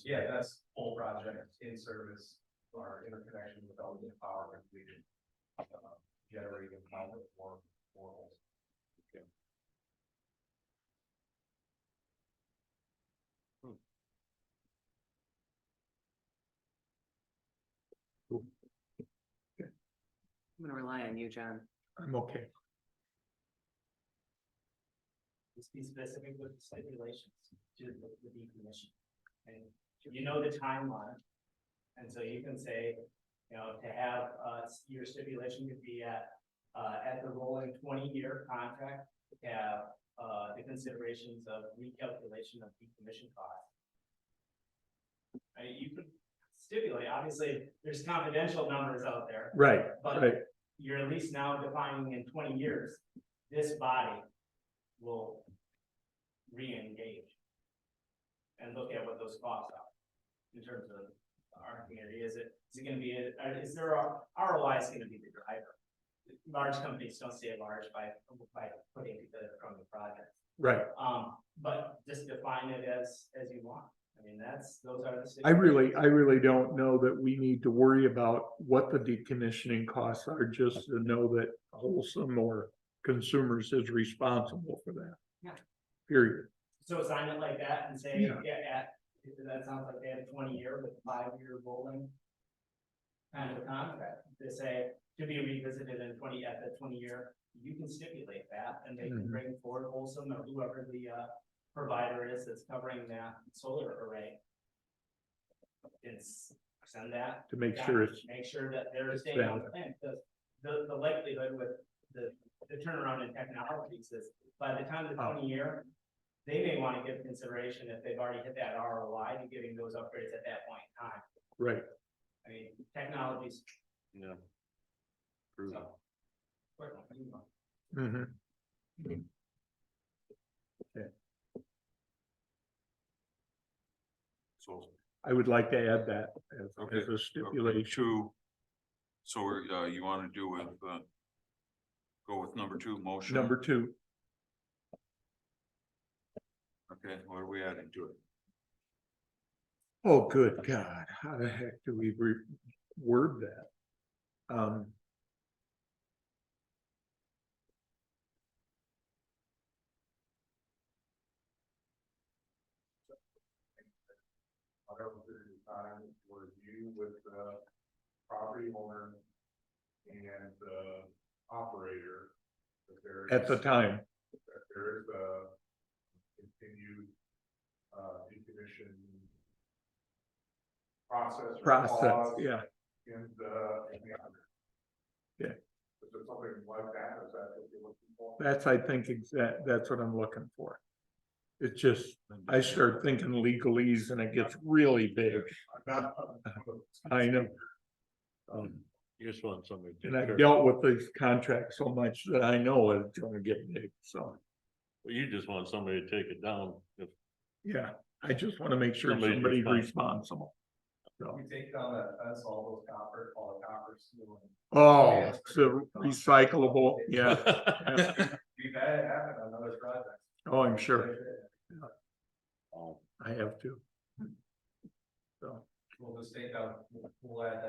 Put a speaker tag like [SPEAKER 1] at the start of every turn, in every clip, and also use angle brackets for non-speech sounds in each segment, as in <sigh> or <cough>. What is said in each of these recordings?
[SPEAKER 1] Yeah, that's full project in service, our interconnection with Element Power completed. uh, Generating power for, for.
[SPEAKER 2] I'm gonna rely on you, John.
[SPEAKER 3] I'm okay.
[SPEAKER 4] Just be specific with the state relations to the the decommission. And you know the timeline. And so you can say, you know, to have, uh, your stipulation could be at, uh, at the rolling twenty-year contract, to have, uh, the considerations of recalculation of decommission costs. I mean, you could stipulate, obviously, there's confidential numbers out there,
[SPEAKER 3] Right,
[SPEAKER 4] but
[SPEAKER 3] right.
[SPEAKER 4] you're at least now defining in twenty years, this body will re-engage and look at what those costs are in terms of our community. Is it, is it gonna be, a- uh, is there, a- ROI is gonna be the driver? Large companies don't stay large by, by putting together from the project.
[SPEAKER 3] Right.
[SPEAKER 4] Um, but just define it as, as you want. I mean, that's, those are the.
[SPEAKER 3] I really, I really don't know that we need to worry about what the decommissioning costs are, just to know that Wholesome or Consumers is responsible for that.
[SPEAKER 2] Yeah.
[SPEAKER 3] Period.
[SPEAKER 4] So sign it like that and say,
[SPEAKER 3] Yeah.
[SPEAKER 4] yeah, at, that sounds like they have a twenty year with five year rolling. Kind of contract, to say, to be revisited in twenty, at the twenty year, you can stipulate that and they can
[SPEAKER 3] Mhm.
[SPEAKER 4] bring forward Olson or whoever the uh. Provider is that's covering that solar array. Is send that.
[SPEAKER 3] To make
[SPEAKER 4] back,
[SPEAKER 3] sure it's,
[SPEAKER 4] Make sure that they're
[SPEAKER 3] it's
[SPEAKER 4] staying on
[SPEAKER 3] valid.
[SPEAKER 4] plan, because the the likelihood with the the turnaround in technologies is by the time the
[SPEAKER 3] Oh.
[SPEAKER 4] twenty year, they may want to give consideration if they've already hit that ROI to giving those upgrades at that point in time.
[SPEAKER 3] right,
[SPEAKER 4] I mean, technologies.
[SPEAKER 1] Yeah.
[SPEAKER 4] so-
[SPEAKER 3] mhm.
[SPEAKER 5] So,
[SPEAKER 3] I would like to add that as,
[SPEAKER 5] Okay.
[SPEAKER 3] as a
[SPEAKER 5] okay,
[SPEAKER 3] stipulation.
[SPEAKER 5] two. So, we're, uh, you wanna do with, uh, go with number two motion?
[SPEAKER 3] Number two,
[SPEAKER 5] Okay, what are we adding to it?
[SPEAKER 3] oh, good God, how the heck do we re- word that? Um,
[SPEAKER 1] Whatever period of time where you with the property owner and the operator. that there
[SPEAKER 3] at the
[SPEAKER 1] is-
[SPEAKER 3] time,
[SPEAKER 1] that there is a continued uh decommission process. or
[SPEAKER 3] process,
[SPEAKER 1] pause
[SPEAKER 3] yeah,
[SPEAKER 1] In the, in the. under.
[SPEAKER 3] Yeah.
[SPEAKER 1] Is there something like that, is that what you're looking for?
[SPEAKER 3] that's, I think, exact, that's what I'm looking for. It's just, I start thinking legalese and it gets really big.
[SPEAKER 1] I'm not-
[SPEAKER 3] Uh, <laughs> I know. Um. You just want somebody. And I've dealt with these contracts so much that I know it's gonna get big, so,
[SPEAKER 6] Well, you just want somebody to take it down. If
[SPEAKER 3] yeah, I just wanna make sure
[SPEAKER 6] Somebody's
[SPEAKER 3] somebody's
[SPEAKER 6] responsible.
[SPEAKER 3] responsible. So,
[SPEAKER 1] We take down that fence, all those copper, all the copper steel. and-
[SPEAKER 3] oh, it's a recyclable, yeah, yeah.
[SPEAKER 6] <laughs>
[SPEAKER 1] We've had it happen on other projects.
[SPEAKER 3] oh, I'm sure, I have to. So,
[SPEAKER 1] We'll just take out, we'll- we'll add
[SPEAKER 6] <laughs>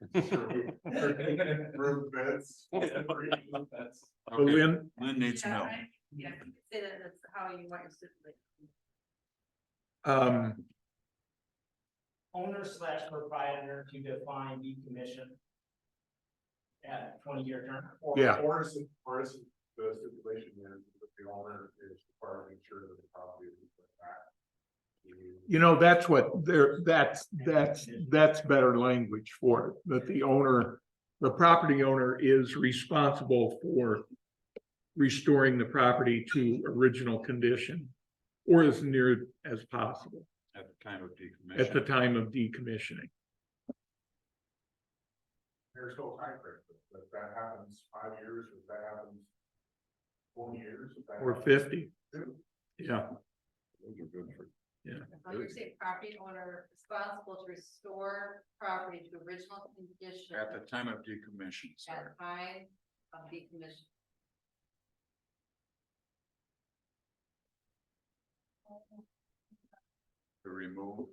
[SPEAKER 1] <laughs> that. Roof beds. Roof beds.
[SPEAKER 3] but
[SPEAKER 5] Okay,
[SPEAKER 3] Lynn,
[SPEAKER 5] Lynn needs some
[SPEAKER 7] Yeah,
[SPEAKER 5] help.
[SPEAKER 7] I- Yeah, you could say that that's how you want your stipulation.
[SPEAKER 3] um,
[SPEAKER 4] Owner slash proprietor to define decommission. At twenty year term.
[SPEAKER 1] Or-
[SPEAKER 3] Yeah.
[SPEAKER 1] Or is, or is the stipulation is that the owner is required to make sure that the property is back.
[SPEAKER 3] You know, that's what there, that's, that's, that's better language for it, that the owner, the property owner is responsible for. Restoring the property to original condition or as near as possible
[SPEAKER 5] At the time of decommission.
[SPEAKER 3] at the time of decommissioning.
[SPEAKER 1] There's no time frame, but if that happens five years, if that happens. Four years. if that
[SPEAKER 3] Or
[SPEAKER 1] happens-
[SPEAKER 3] fifty. Yeah,
[SPEAKER 5] Those are good for-
[SPEAKER 7] So you're saying property owner responsible to restore property to original condition.
[SPEAKER 5] At the time of decommission, sorry.
[SPEAKER 7] At time of decommission.
[SPEAKER 5] To remove